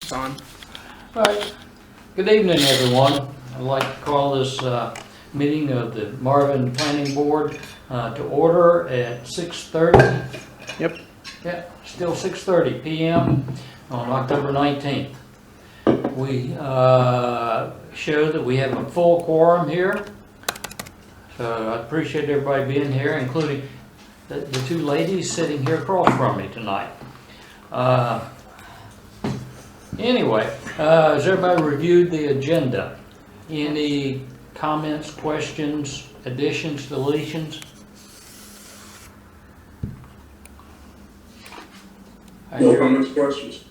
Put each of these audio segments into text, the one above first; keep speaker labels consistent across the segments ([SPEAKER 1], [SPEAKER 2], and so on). [SPEAKER 1] Don?
[SPEAKER 2] All right. Good evening, everyone. I'd like to call this uh, meeting of the Marvin Planning Board uh, to order at 6:30.
[SPEAKER 1] Yep.
[SPEAKER 2] Yeah, still 6:30 PM on October 19th. We uh, show that we have a full quorum here. So I appreciate everybody being here, including the the two ladies sitting here across from me tonight. Uh, Anyway, uh, has everybody reviewed the agenda? Any comments, questions, additions, deletions? I
[SPEAKER 3] No
[SPEAKER 2] hear-
[SPEAKER 3] comments, questions.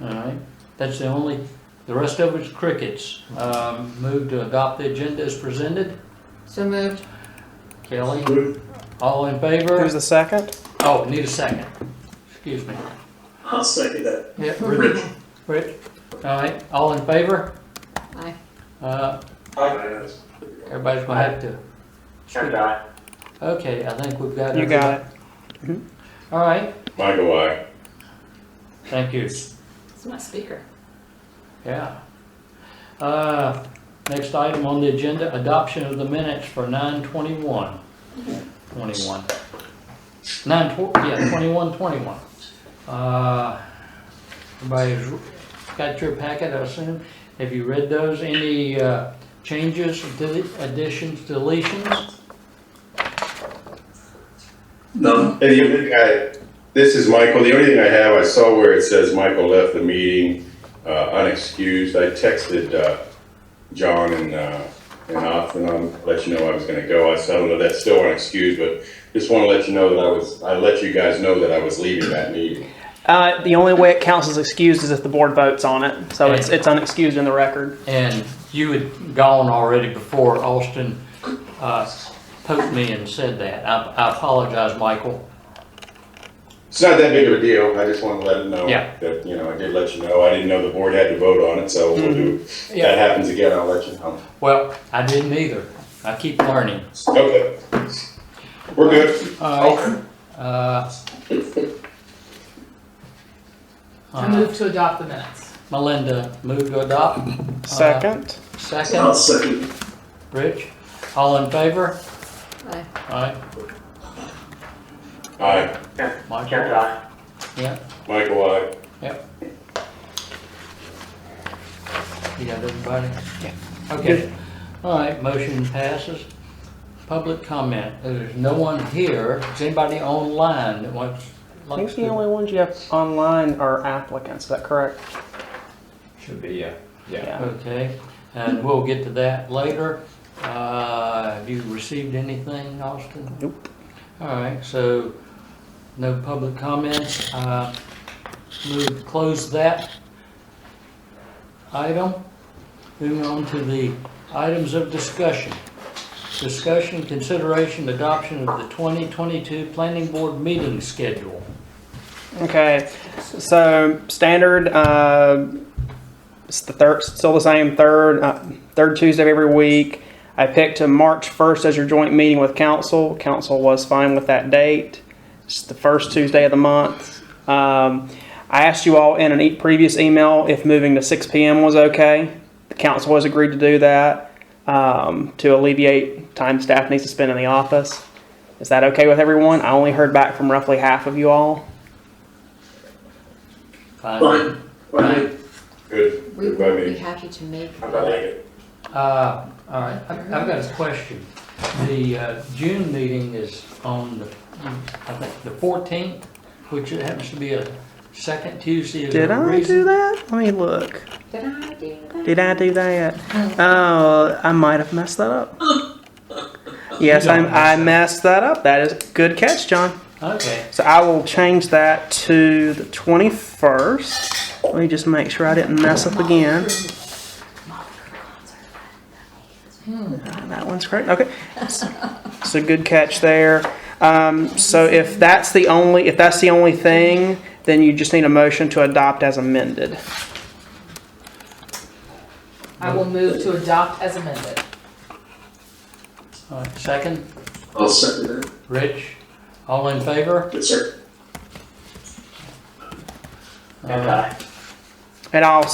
[SPEAKER 2] All right, that's the only, the rest of it's crickets. Um, Move to adopt the agenda as presented.
[SPEAKER 4] So moved.
[SPEAKER 2] Kelly,
[SPEAKER 3] Move.
[SPEAKER 2] all in favor?
[SPEAKER 1] Who's the second?
[SPEAKER 2] Oh, need a second. Excuse me.
[SPEAKER 3] I'll second that.
[SPEAKER 2] Yeah, Rich. Rich, all right, all in favor?
[SPEAKER 4] Aye.
[SPEAKER 2] Uh,
[SPEAKER 3] Aye.
[SPEAKER 2] Everybody's gonna have to. speak. Okay, I think we've got.
[SPEAKER 1] You got it.
[SPEAKER 2] All right,
[SPEAKER 3] Michael, aye.
[SPEAKER 2] thank you,
[SPEAKER 4] It's my speaker.
[SPEAKER 2] yeah. Uh, next item on the agenda, adoption of the minutes for nine twenty-one, twenty-one. Nine tw- yeah, twenty-one, twenty-one. Uh, everybody's got your packet, I assume. Have you read those? Any, uh, changes, dele- additions, deletions?
[SPEAKER 3] None.
[SPEAKER 5] And the only thing I, this is Michael, the only thing I have, I saw where it says Michael left the meeting, uh, unexcused, I texted, uh, John and, uh, and Austin, I'll let you know I was gonna go, I said, I don't know, that's still unexcused, but just wanna let you know that I was, I let you guys know that I was leaving that meeting.
[SPEAKER 6] Uh, the only way it counts as excused is if the board votes on it. So it's, it's unexcused in the record.
[SPEAKER 2] And you had gone already before Austin uh, poked me and said that. I I apologize, Michael.
[SPEAKER 5] It's not that big of a deal, I just wanted to let him know
[SPEAKER 2] Yeah.
[SPEAKER 5] that, you know, I did let you know, I didn't know the board had to vote on it, so we'll do, if that happens again, I'll let you know.
[SPEAKER 2] Well, I didn't either. I keep learning.
[SPEAKER 5] Okay. We're good.
[SPEAKER 2] All right. Uh,
[SPEAKER 4] I move to adopt the minutes.
[SPEAKER 2] Melinda, move to adopt.
[SPEAKER 6] Uh, Second.
[SPEAKER 3] I'll
[SPEAKER 2] Second,
[SPEAKER 3] second.
[SPEAKER 2] Rich, all in favor?
[SPEAKER 4] Aye.
[SPEAKER 2] Aye.
[SPEAKER 5] Aye,
[SPEAKER 2] Michael? Yeah,
[SPEAKER 5] Michael, aye.
[SPEAKER 2] you got everybody? Yeah. Okay. All right, motion passes. Public comment. There's no one here. Is anybody online that wants?
[SPEAKER 6] I
[SPEAKER 2] likes
[SPEAKER 6] think
[SPEAKER 2] to-
[SPEAKER 6] the only ones you have online are applicants. Is that correct?
[SPEAKER 7] Should be, yeah.
[SPEAKER 6] Yeah.
[SPEAKER 2] Okay, and we'll get to that later. Uh, Have you received anything, Austin?
[SPEAKER 6] Nope.
[SPEAKER 2] All right, so no public comments. Uh, Move, to close that item. Moving on to the items of discussion. Discussion, consideration, adoption of the 2022 Planning Board meeting schedule.
[SPEAKER 6] Okay. So standard, uh, it's the third, still the same third, uh, third Tuesday of every week. I picked a March 1st as your joint meeting with council. Council was fine with that date. It's the first Tuesday of the month. Um, I asked you all in an e- previous email if moving to 6 p.m. was okay. The council has agreed to do that um, to alleviate time staff needs to spend in the office. Is that okay with everyone? I only heard back from roughly half of you all.
[SPEAKER 2] Fine.
[SPEAKER 3] Fine. Fine.
[SPEAKER 5] Good,
[SPEAKER 4] We
[SPEAKER 5] good by
[SPEAKER 4] would be
[SPEAKER 5] me.
[SPEAKER 4] happy to make.
[SPEAKER 5] I like it.
[SPEAKER 2] Uh, All right, I- I've got a question. The uh, June meeting is on the, I think, the 14th, which it happens to be a second Tuesday. Is there
[SPEAKER 6] Did
[SPEAKER 2] a
[SPEAKER 6] I
[SPEAKER 2] reason?
[SPEAKER 6] do that? Let me look.
[SPEAKER 4] Did I do that?
[SPEAKER 6] Did I do that? Oh, I might have messed that up. Yes,
[SPEAKER 2] You
[SPEAKER 6] I,
[SPEAKER 2] don't
[SPEAKER 6] I
[SPEAKER 2] mess
[SPEAKER 6] messed that up. That is good catch, John.
[SPEAKER 2] Okay,
[SPEAKER 6] So I will change that to the 21st. Let me just make sure I didn't mess up again. Uh, That one's correct. Okay. So good catch there. Um, so if that's the only if that's the only thing, then you just need a motion to adopt as amended.
[SPEAKER 4] I will move to adopt as amended.
[SPEAKER 2] all right, second,
[SPEAKER 3] I'll second that.
[SPEAKER 2] Rich, all in favor?
[SPEAKER 3] Yes, sir.
[SPEAKER 2] All right.
[SPEAKER 6] And I'll